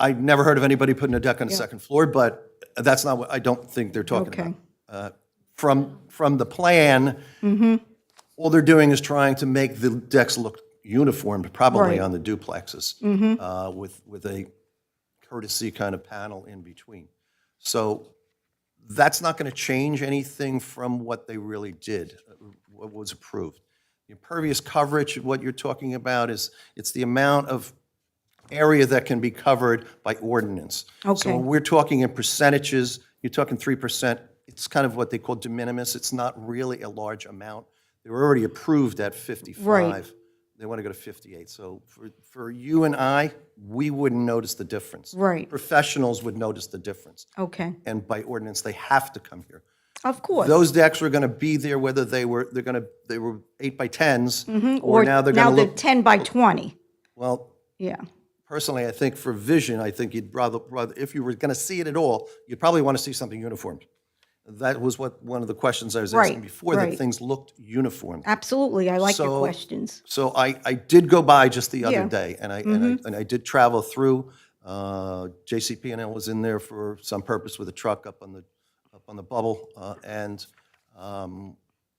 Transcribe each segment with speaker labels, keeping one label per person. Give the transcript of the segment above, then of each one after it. Speaker 1: I've never heard of anybody putting a deck on the second floor, but that's not what, I don't think they're talking about.
Speaker 2: Okay.
Speaker 1: Uh, From, from the plan,
Speaker 2: Mm-hmm.
Speaker 1: all they're doing is trying to make the decks look uniform, probably
Speaker 2: Right. Mm-hmm.
Speaker 1: on the duplexes, uh, with, with a courtesy kind of panel in between. So that's not going to change anything from what they really did, uh, what was approved. The Impervious coverage, what you're talking about is, it's the amount of area that can be covered by ordinance. So
Speaker 2: Okay.
Speaker 1: when we're talking in percentages, you're talking 3%, it's kind of what they call de minimis, it's not really a large amount. They were already approved at 55. They want to go to 58. So for, for you and I, we wouldn't notice the difference.
Speaker 2: Right.
Speaker 1: Professionals would notice the difference.
Speaker 2: Okay,
Speaker 1: And by ordinance, they have to come here.
Speaker 2: of course.
Speaker 1: Those decks were going to be there whether they were, they're going to, they were eight by 10s, or now they're
Speaker 2: Mm-hmm. Now
Speaker 1: going to
Speaker 2: they're
Speaker 1: look,
Speaker 2: 10 by 20,
Speaker 1: well,
Speaker 2: yeah.
Speaker 1: personally, I think for vision, I think you'd rather, rather if you were going to see it at all, you'd probably want to see something uniform. That was what, one of the questions I was asking
Speaker 2: Right,
Speaker 1: before, that
Speaker 2: right.
Speaker 1: things looked uniform.
Speaker 2: Absolutely, I like your
Speaker 1: So-
Speaker 2: questions.
Speaker 1: So I, I did go by just the other
Speaker 2: Yeah. Mm-hmm.
Speaker 1: day, and I, and I, and I did travel through. Uh, JCPenney was in there for some purpose with a truck up on the, up on the bubble, uh, and, um,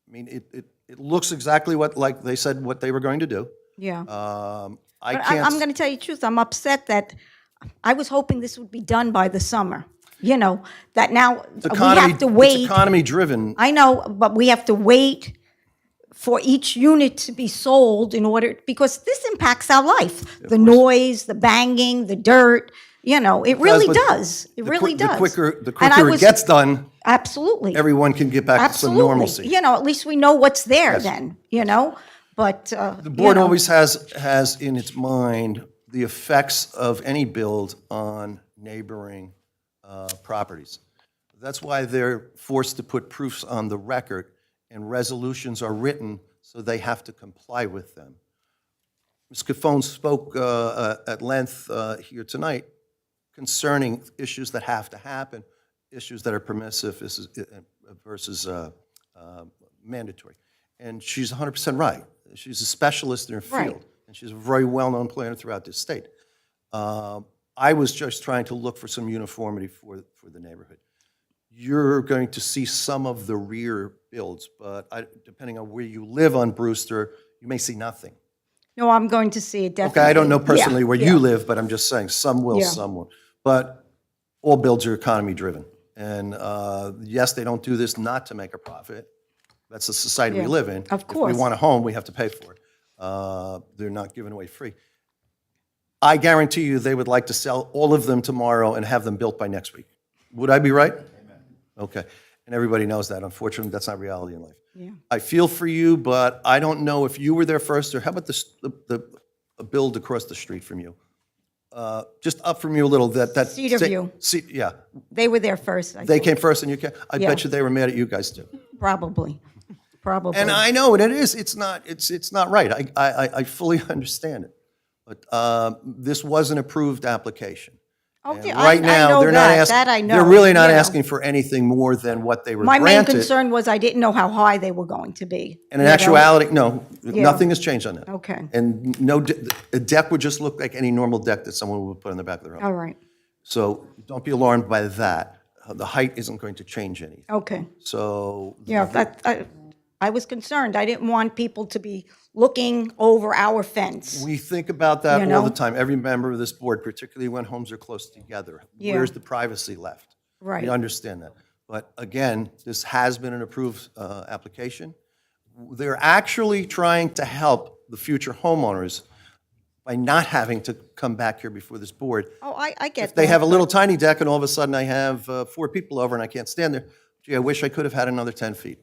Speaker 1: I mean, it, it, it looks exactly what, like they said what they were going to do.
Speaker 2: Yeah.
Speaker 1: Um, I
Speaker 2: I- I'm
Speaker 1: can't,
Speaker 2: going to tell you the truth, I'm upset that, I was hoping this would be done by the summer, you know, that now we
Speaker 1: economy,
Speaker 2: have to wait.
Speaker 1: it's economy-driven.
Speaker 2: I know, but we have to wait for each unit to be sold in order, because this impacts our life. The noise, the banging, the dirt, you know, it really
Speaker 1: but
Speaker 2: does.
Speaker 1: The
Speaker 2: It
Speaker 1: qui-
Speaker 2: really does.
Speaker 1: The quicker, the
Speaker 2: And I
Speaker 1: quicker it
Speaker 2: was-
Speaker 1: gets done,
Speaker 2: Absolutely.
Speaker 1: everyone can get back to some
Speaker 2: Absolutely.
Speaker 1: normalcy.
Speaker 2: You know, at least we know what's there then, you know? But, uh,
Speaker 1: The board always has, has in its mind the effects of any build on neighboring uh, properties. That's why they're forced to put proofs on the record, and resolutions are written, so they have to comply with them. Ms. Cofone spoke uh, uh, at length uh, here tonight concerning issues that have to happen, issues that are permissive is- uh, versus uh, uh, mandatory. And she's 100% right. She's a specialist in her
Speaker 2: Right.
Speaker 1: field, and she's a very well-known planner throughout the state. Um, I was just trying to look for some uniformity for, for the neighborhood. You're going to see some of the rear builds, but I- depending on where you live on Brewster, you may see nothing.
Speaker 2: no, I'm going to see it
Speaker 1: Okay,
Speaker 2: definitely.
Speaker 1: I don't know
Speaker 2: Yeah,
Speaker 1: personally where
Speaker 2: yeah.
Speaker 1: you live, but I'm just saying, some will,
Speaker 2: Yeah.
Speaker 1: some won't. But all builds are economy-driven. And uh, yes, they don't do this not to make a profit. That's the society we
Speaker 2: Yeah,
Speaker 1: live in.
Speaker 2: of
Speaker 1: If
Speaker 2: course.
Speaker 1: we want a home, we have to pay for it. Uh, They're not giving away free. I guarantee you, they would like to sell all of them tomorrow and have them built by next week. Would I be right? Okay. And everybody knows that. Unfortunately, that's not reality in life.
Speaker 2: Yeah.
Speaker 1: I feel for you, but I don't know if you were there first, or how about this, the, the a build across the street from you? Uh, Just up from you a little, that, that.
Speaker 2: Cedar
Speaker 1: sa-
Speaker 2: View.
Speaker 1: Ce- Yeah,
Speaker 2: They were there first, I
Speaker 1: they
Speaker 2: think,
Speaker 1: came first and you came, I bet
Speaker 2: Yeah.
Speaker 1: you they were mad at you guys too.
Speaker 2: probably, probably.
Speaker 1: And I know, and it is, it's not, it's, it's not right. I, I, I- I fully understand it. But uh, this was an approved application. And
Speaker 2: Okay, I-
Speaker 1: Right
Speaker 2: I
Speaker 1: now,
Speaker 2: know
Speaker 1: they're not
Speaker 2: that.
Speaker 1: asking.
Speaker 2: That I know,
Speaker 1: They're really not
Speaker 2: you know.
Speaker 1: asking for anything more than what they were
Speaker 2: My
Speaker 1: granted.
Speaker 2: main concern was I didn't know how high they were going to be.
Speaker 1: And in
Speaker 2: you know?
Speaker 1: actuality, no, nothing has changed on that.
Speaker 2: Okay.
Speaker 1: And no, de- a deck would just look like any normal deck that someone would put on the back of their home.
Speaker 2: All right,
Speaker 1: So don't be alarmed by that. Uh, The height isn't going to change anything.
Speaker 2: okay.
Speaker 1: So
Speaker 2: Oh. Yeah, that, I, I was concerned. I didn't want people to be looking over our fence.
Speaker 1: we think about that
Speaker 2: You
Speaker 1: all the
Speaker 2: know?
Speaker 1: time. Every member of this board, particularly when homes are close together,
Speaker 2: Yeah.
Speaker 1: where's the privacy left?
Speaker 2: Right.
Speaker 1: We understand that. But again, this has been an approved uh, application. They're actually trying to help the future homeowners by not having to come back here before this board.
Speaker 2: Oh, I, I get
Speaker 1: They
Speaker 2: that.
Speaker 1: have a little tiny deck, and all of a sudden I have uh, four people over and I can't stand there. Gee, I wish I could have had another 10 feet.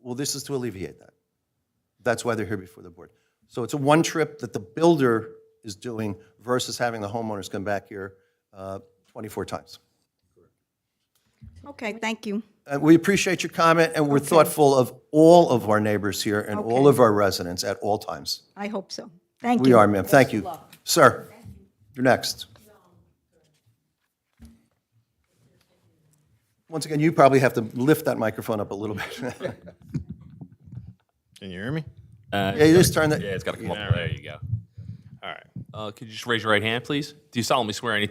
Speaker 1: Well, this is to alleviate that. That's why they're here before the board. So it's a one trip that the builder is doing versus having the homeowners come back here uh, 24 times.
Speaker 2: Okay, thank you.
Speaker 1: Uh, We appreciate your comment, and we're thoughtful of all of our neighbors here and all
Speaker 2: Okay.
Speaker 1: of our residents at all times.
Speaker 2: I hope so. Thank you.
Speaker 1: We are, ma'am. Thank you. Sir, you're next. Once again, you probably have to lift that microphone up a little bit.
Speaker 3: Can you hear me?
Speaker 1: Yeah, you just turn that.
Speaker 4: Yeah, it's got to come up. There you go. All right. Uh, could you just raise your right hand, please? Do you solemnly swear any